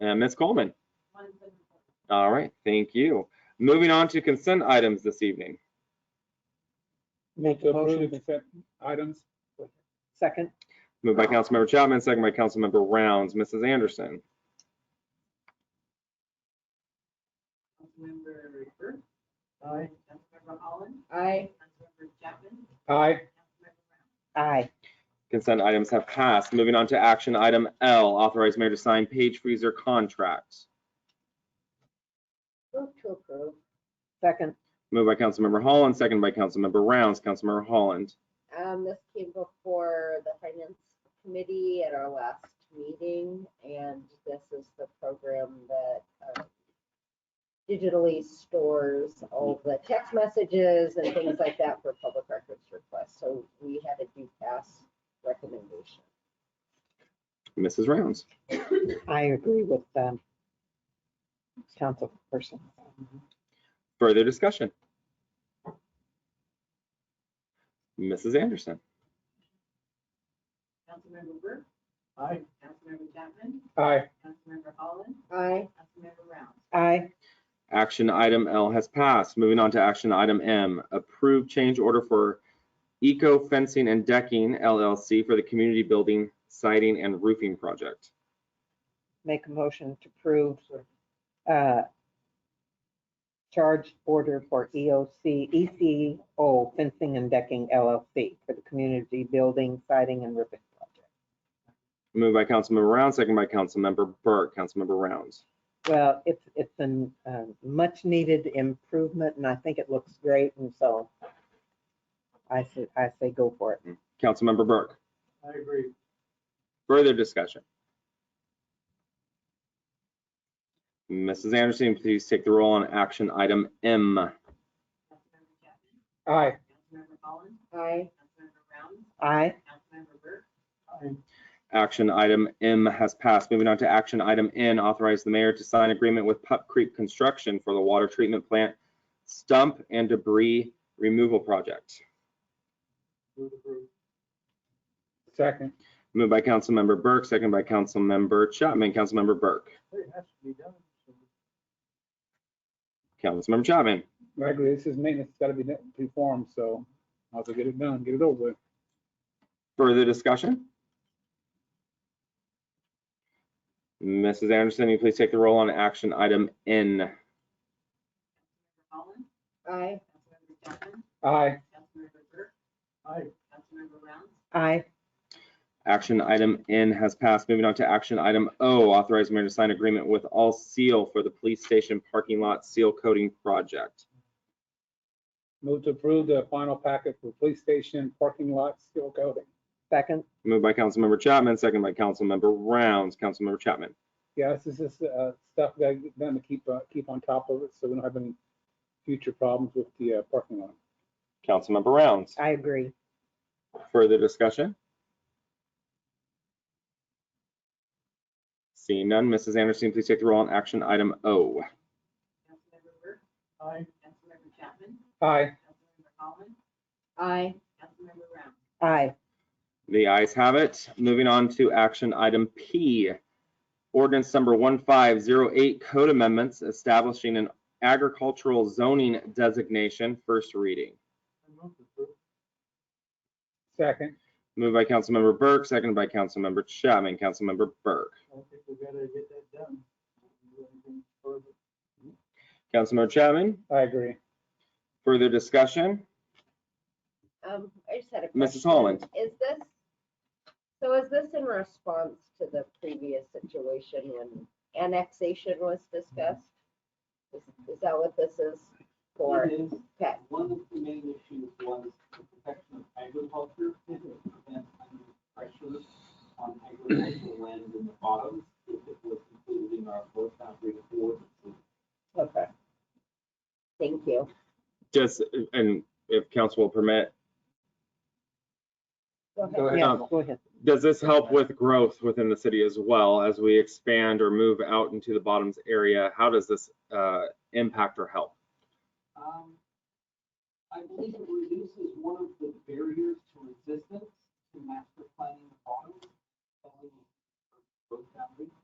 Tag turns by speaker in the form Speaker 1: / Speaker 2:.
Speaker 1: And Ms. Coleman? All right, thank you. Moving on to consent items this evening.
Speaker 2: Make
Speaker 3: to
Speaker 2: a
Speaker 3: approve
Speaker 2: motion,
Speaker 3: and accept items.
Speaker 2: second,
Speaker 1: Moved by Councilmember Chapman, second by Councilmember Rounds. Mrs. Anderson?
Speaker 4: Councilmember Burt.
Speaker 2: Aye.
Speaker 4: Councilmember Holland.
Speaker 2: Aye.
Speaker 4: Councilmember Chapman.
Speaker 3: Aye,
Speaker 4: Councilmember Brown.
Speaker 2: aye,
Speaker 1: Consent items have passed. Moving on to action item L, authorize mayor to sign page freezer contracts.
Speaker 2: move to approve, second,
Speaker 1: Moved by Councilmember Holland, second by Councilmember Rounds. Councilmember Holland.
Speaker 5: Um, this came before the finance committee at our last meeting, and this is the program that um, digitally stores all the text messages and things like that for public records requests. So we had a due pass recommendation.
Speaker 1: Mrs. Rounds.
Speaker 2: I agree with, um, councilperson.
Speaker 1: Further discussion? Mrs. Anderson?
Speaker 4: Councilmember Burt.
Speaker 3: Aye.
Speaker 4: Councilmember Chapman.
Speaker 3: aye,
Speaker 4: Councilmember Holland.
Speaker 5: Aye,
Speaker 4: Councilmember Brown.
Speaker 2: Aye,
Speaker 1: Action item L has passed. Moving on to action item M, approve change order for Eco Fencing and Decking LLC for the community building siding and roofing project.
Speaker 2: make a motion to approve, uh, charge order for E EOC, ECO fencing and decking LLC for the community building siding and roofing project.
Speaker 1: Moved by Councilmember Rounds, second by Councilmember Burke. Councilmember Rounds.
Speaker 2: Well, it's, it's a much needed improvement and I think it looks great and so I say, I say go for it.
Speaker 1: Councilmember Burke.
Speaker 3: I agree.
Speaker 1: Further discussion? Mrs. Anderson, please take the roll on action item M.
Speaker 4: Councilmember Chapman.
Speaker 3: Aye,
Speaker 4: Councilmember Holland.
Speaker 5: aye,
Speaker 4: Councilmember Brown.
Speaker 2: Aye,
Speaker 4: Councilmember Burt.
Speaker 3: aye,
Speaker 1: Action item M has passed. Moving on to action item N, authorize the mayor to sign agreement with Pup Creek Construction for the water treatment plant stump and debris removal project.
Speaker 3: move approve. Second.
Speaker 1: Moved by Councilmember Burke, second by Councilmember Chapman. Councilmember Burke.
Speaker 3: It has to be done.
Speaker 1: Councilmember Chapman.
Speaker 3: I agree, this is maintenance, it's gotta be done- performed, so I'll get it done, get it over with.
Speaker 1: Further discussion? Mrs. Anderson, will you please take the roll on action item N.
Speaker 4: Councilmember Holland.
Speaker 5: aye.
Speaker 4: Councilmember Chapman.
Speaker 3: Aye,
Speaker 4: Councilmember Burt.
Speaker 3: aye,
Speaker 4: Councilmember Brown.
Speaker 2: aye,
Speaker 1: Action item N has passed. Moving on to action item O, authorize mayor to sign agreement with All Seal for the police station parking lot seal coating project.
Speaker 3: move to approve the final packet for police station parking lot seal coating.
Speaker 2: second,
Speaker 1: Moved by Councilmember Chapman, second by Councilmember Rounds. Councilmember Chapman.
Speaker 3: Yeah, this is just uh, stuff that I'm going to keep, uh, keep on top of it, so we don't have any future problems with the uh, parking lot.
Speaker 1: Councilmember Rounds.
Speaker 2: I agree.
Speaker 1: Further discussion? Seeing none, Mrs. Anderson, please take the roll on action item O.
Speaker 4: Councilmember Burt.
Speaker 3: Aye.
Speaker 4: Councilmember Chapman.
Speaker 3: Aye,
Speaker 4: Councilmember Holland.
Speaker 5: Aye,
Speaker 4: Councilmember Brown.
Speaker 2: Aye,
Speaker 1: The ayes have it. Moving on to action item P. Ordinance number 1508, code amendments establishing an agricultural zoning designation, first reading.
Speaker 3: second.
Speaker 1: Moved by Councilmember Burke, seconded by Councilmember Chapman. Councilmember Burke.
Speaker 3: I think we gotta get that done.
Speaker 1: Councilmember Chapman,
Speaker 3: I agree.
Speaker 1: further discussion?
Speaker 5: Um, I just had a question.
Speaker 1: Mrs. Holland.
Speaker 5: Is this, so is this in response to the previous situation when annexation was discussed? Is is that what this is for?
Speaker 6: It is,
Speaker 5: Okay,
Speaker 6: one of the main issues was the protection of agriculture and prevent undue pressure on agricultural land in the bottom if it was included in our forest boundary ordinance.
Speaker 5: okay. Thank you.
Speaker 1: Just, and if council will permit,
Speaker 5: Go ahead.
Speaker 3: Go ahead.
Speaker 2: yeah, go ahead.
Speaker 1: does this help with growth within the city as well as we expand or move out into the bottoms area? How does this uh, impact or help?
Speaker 6: Um, I believe it reduces one of the barriers to resistance to master planning the bottom. of the Forest boundary.